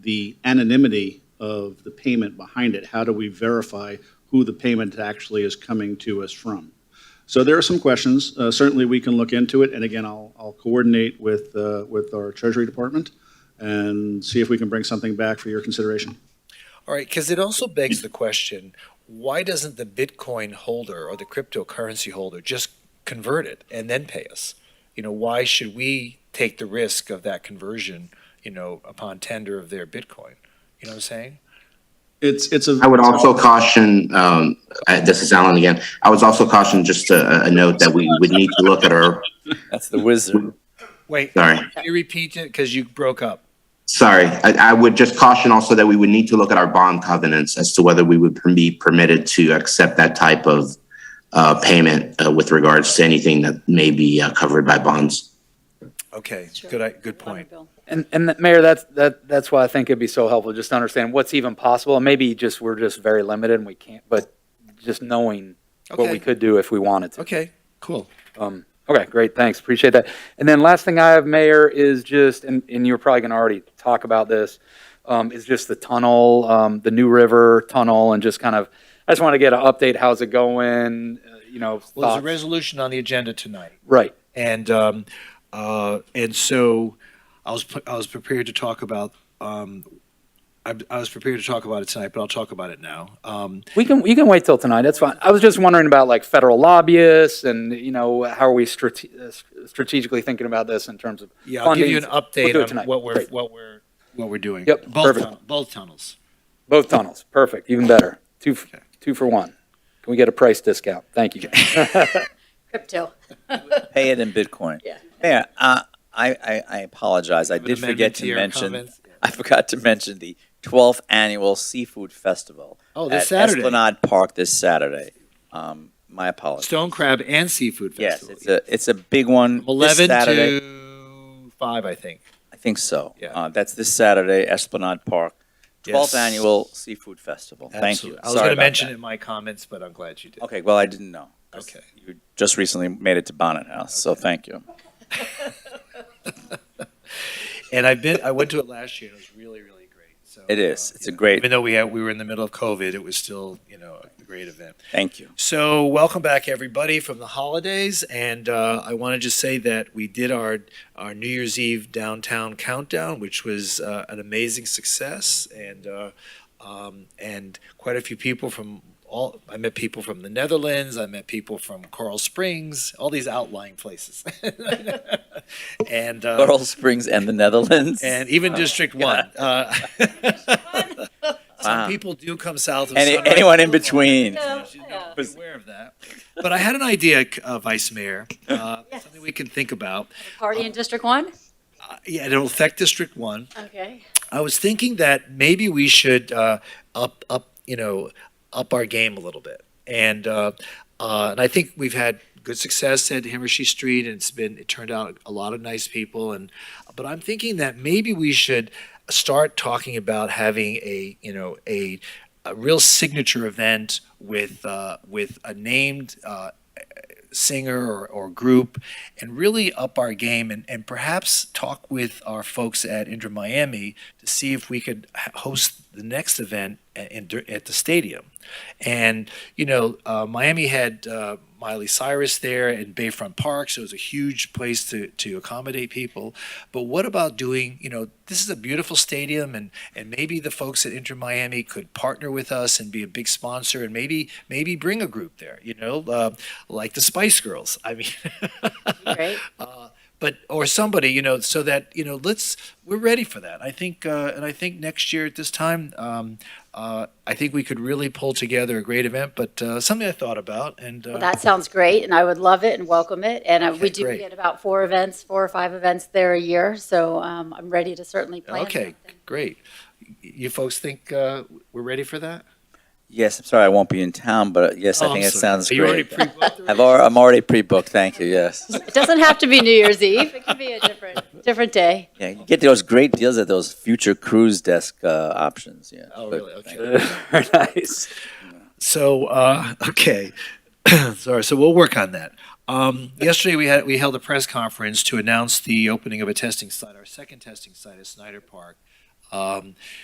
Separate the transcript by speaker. Speaker 1: the anonymity of the payment behind it. How do we verify who the payment actually is coming to us from? So there are some questions. Uh, Certainly, we can look into it, and again, I'll I'll coordinate with, uh, with our Treasury Department and see if we can bring something back for your consideration.
Speaker 2: All right, because it also begs the question, why doesn't the Bitcoin holder or the cryptocurrency holder just convert it and then pay us? You know, why should we take the risk of that conversion, you know, upon tender of their Bitcoin? You know what I'm saying?
Speaker 1: It's, it's a.
Speaker 3: I would also caution, um, I- this is Alan again, I was also caution just a, a note that we would need to look at our,
Speaker 4: That's the wizard.
Speaker 2: Wait,
Speaker 3: sorry,
Speaker 2: can you repeat it? Because you broke up.
Speaker 3: sorry. I, I would just caution also that we would need to look at our bond covenants as to whether we would be permitted to accept that type of, uh, payment, uh, with regards to anything that may be uh, covered by bonds.
Speaker 2: Okay, good, I- good point.
Speaker 5: And, and that- Mayor, that's, that, that's why I think it'd be so helpful, just to understand what's even possible, and maybe just, we're just very limited and we can't, but just knowing what we
Speaker 2: Okay.
Speaker 5: could do if we wanted to.
Speaker 2: Okay, cool.
Speaker 5: Um, okay, great, thanks, appreciate that. And then last thing I have, Mayor, is just, and, and you're probably gonna already talk about this, um, is just the tunnel, um, the New River Tunnel, and just kind of, I just wanna get an update, how's it going, uh, you know,
Speaker 2: Well, there's a
Speaker 5: thoughts.
Speaker 2: resolution on the agenda tonight.
Speaker 5: Right,
Speaker 2: And um, uh, and so I was I was prepared to talk about um, I, I was prepared to talk about it tonight, but I'll talk about it now. Um,
Speaker 5: we can, you can wait till tonight, that's fine. I was just wondering about like federal lobbyists and, you know, how are we strate- uh, strategically thinking about this in terms of
Speaker 2: yeah, I'll give you an
Speaker 5: Funding. We'll
Speaker 2: update
Speaker 5: do it
Speaker 2: on
Speaker 5: tonight.
Speaker 2: what we're
Speaker 5: Great.
Speaker 2: what we're what we're doing.
Speaker 5: Yep,
Speaker 2: both
Speaker 5: perfect.
Speaker 2: tun- both tunnels.
Speaker 5: both tunnels? Perfect, even better, two, f- two for one. Can we get a price discount? Thank you.
Speaker 6: Crypto.
Speaker 4: Pay it in Bitcoin.
Speaker 6: Yeah.
Speaker 4: Mayor, uh, I, I, I apologize. I
Speaker 2: Have an
Speaker 4: did
Speaker 2: amendment
Speaker 4: forget
Speaker 2: to
Speaker 4: to
Speaker 2: your
Speaker 4: mention,
Speaker 2: comments.
Speaker 4: I forgot to mention the 12th Annual Seafood Festival.
Speaker 2: Oh, this
Speaker 4: at
Speaker 2: Saturday.
Speaker 4: Esplanade Park this Saturday. Um, my apologies.
Speaker 2: Stone crab and seafood
Speaker 4: Yes,
Speaker 2: festival.
Speaker 4: it's a, it's a big one. this
Speaker 2: eleven
Speaker 4: Saturday.
Speaker 2: to five, I think.
Speaker 4: I think so.
Speaker 2: Yeah.
Speaker 4: Uh, that's this Saturday, Esplanade Park, 12th
Speaker 2: Yes.
Speaker 4: Annual Seafood Festival. Thank you.
Speaker 2: Absolutely. I was
Speaker 4: Sorry
Speaker 2: going to
Speaker 4: about
Speaker 2: mention
Speaker 4: that.
Speaker 2: it in my comments, but I'm glad you did.
Speaker 4: Okay, well, I didn't know. 'cause
Speaker 2: Okay.
Speaker 4: You just recently made it to Bonnet House, so thank you.
Speaker 2: And I've been I went to it last year. and It was really really great. So uh,
Speaker 4: It is. It's a great,
Speaker 2: Even though we had, we were in the middle of COVID, it was still, you know, a great event.
Speaker 4: thank you.
Speaker 2: So, welcome back, everybody, from the holidays. And uh, I want to just say that we did our our New Year's Eve downtown countdown, which was uh, an amazing success, and uh, um, and quite a few people from all. I met people from the Netherlands. I met people from Coral Springs, all these outlying places, and uh,
Speaker 4: Laurel Springs and the Netherlands.
Speaker 2: and even District One. Uh,
Speaker 4: Wow.
Speaker 2: some people do come south of
Speaker 4: Any,
Speaker 2: Sunrise
Speaker 4: anyone in between.
Speaker 6: No,
Speaker 2: you know,
Speaker 6: yeah.
Speaker 2: be aware of that. But I had an idea, uh, Vice Mayor, uh,
Speaker 6: Yes.
Speaker 2: something we can think about.
Speaker 6: Party in District One?
Speaker 2: Uh, yeah, it'll affect District One.
Speaker 6: Okay.
Speaker 2: I was thinking that maybe we should uh, up up you know up our game a little bit, and uh, uh, and I think we've had good success at Himmershey Street, and it's been it turned out a lot of nice people, and but I'm thinking that maybe we should start talking about having a you know a a real signature event with uh, with a named uh, singer or, or group and really up our game and, and perhaps talk with our folks at Inter Miami to see if we could h- host the next event at, in, at the stadium. And, you know, uh, Miami had uh, Miley Cyrus there and Bayfront Park, so it was a huge place to, to accommodate people. But what about doing, you know, this is a beautiful stadium and, and maybe the folks at Inter Miami could partner with us and be a big sponsor and maybe maybe bring a group there, you know, uh, like the Spice Girls. I mean,
Speaker 6: Great.
Speaker 2: uh, but or somebody, you know, so that you know, let's we're ready for that. I think, uh, and I think next year at this time, um, uh, I think we could really pull together a great event. But uh, something I thought about, and uh,
Speaker 6: Well, that sounds great, and I would love it and welcome it. And uh,
Speaker 2: Okay,
Speaker 6: we do
Speaker 2: great.
Speaker 6: get about four events, four or five events there a year, so um, I'm ready to certainly plan.
Speaker 2: uh, okay,
Speaker 6: something.
Speaker 2: great. You folks think uh, we're ready for that?
Speaker 4: Yes, I'm sorry, I won't be in town, but uh, yes, I
Speaker 2: Oh,
Speaker 4: think
Speaker 2: I'm
Speaker 4: it
Speaker 2: sorry.
Speaker 4: sounds
Speaker 2: Are you already
Speaker 4: great.
Speaker 2: pre-booked?
Speaker 4: I've already, I'm already pre-booked, thank you, yes.
Speaker 6: It doesn't have to be New Year's Eve. It can be a different, different day.
Speaker 4: Yeah, you get those great deals at those future cruise desk, uh, options, yeah.
Speaker 2: Oh,
Speaker 4: But
Speaker 2: really?
Speaker 4: thank
Speaker 2: Okay.
Speaker 4: you.
Speaker 5: Very nice.
Speaker 2: So uh, okay, sorry. So we'll work on that. Um, yesterday we had we held a press conference to announce the opening of a testing site, our second testing site at Snyder Park, Um,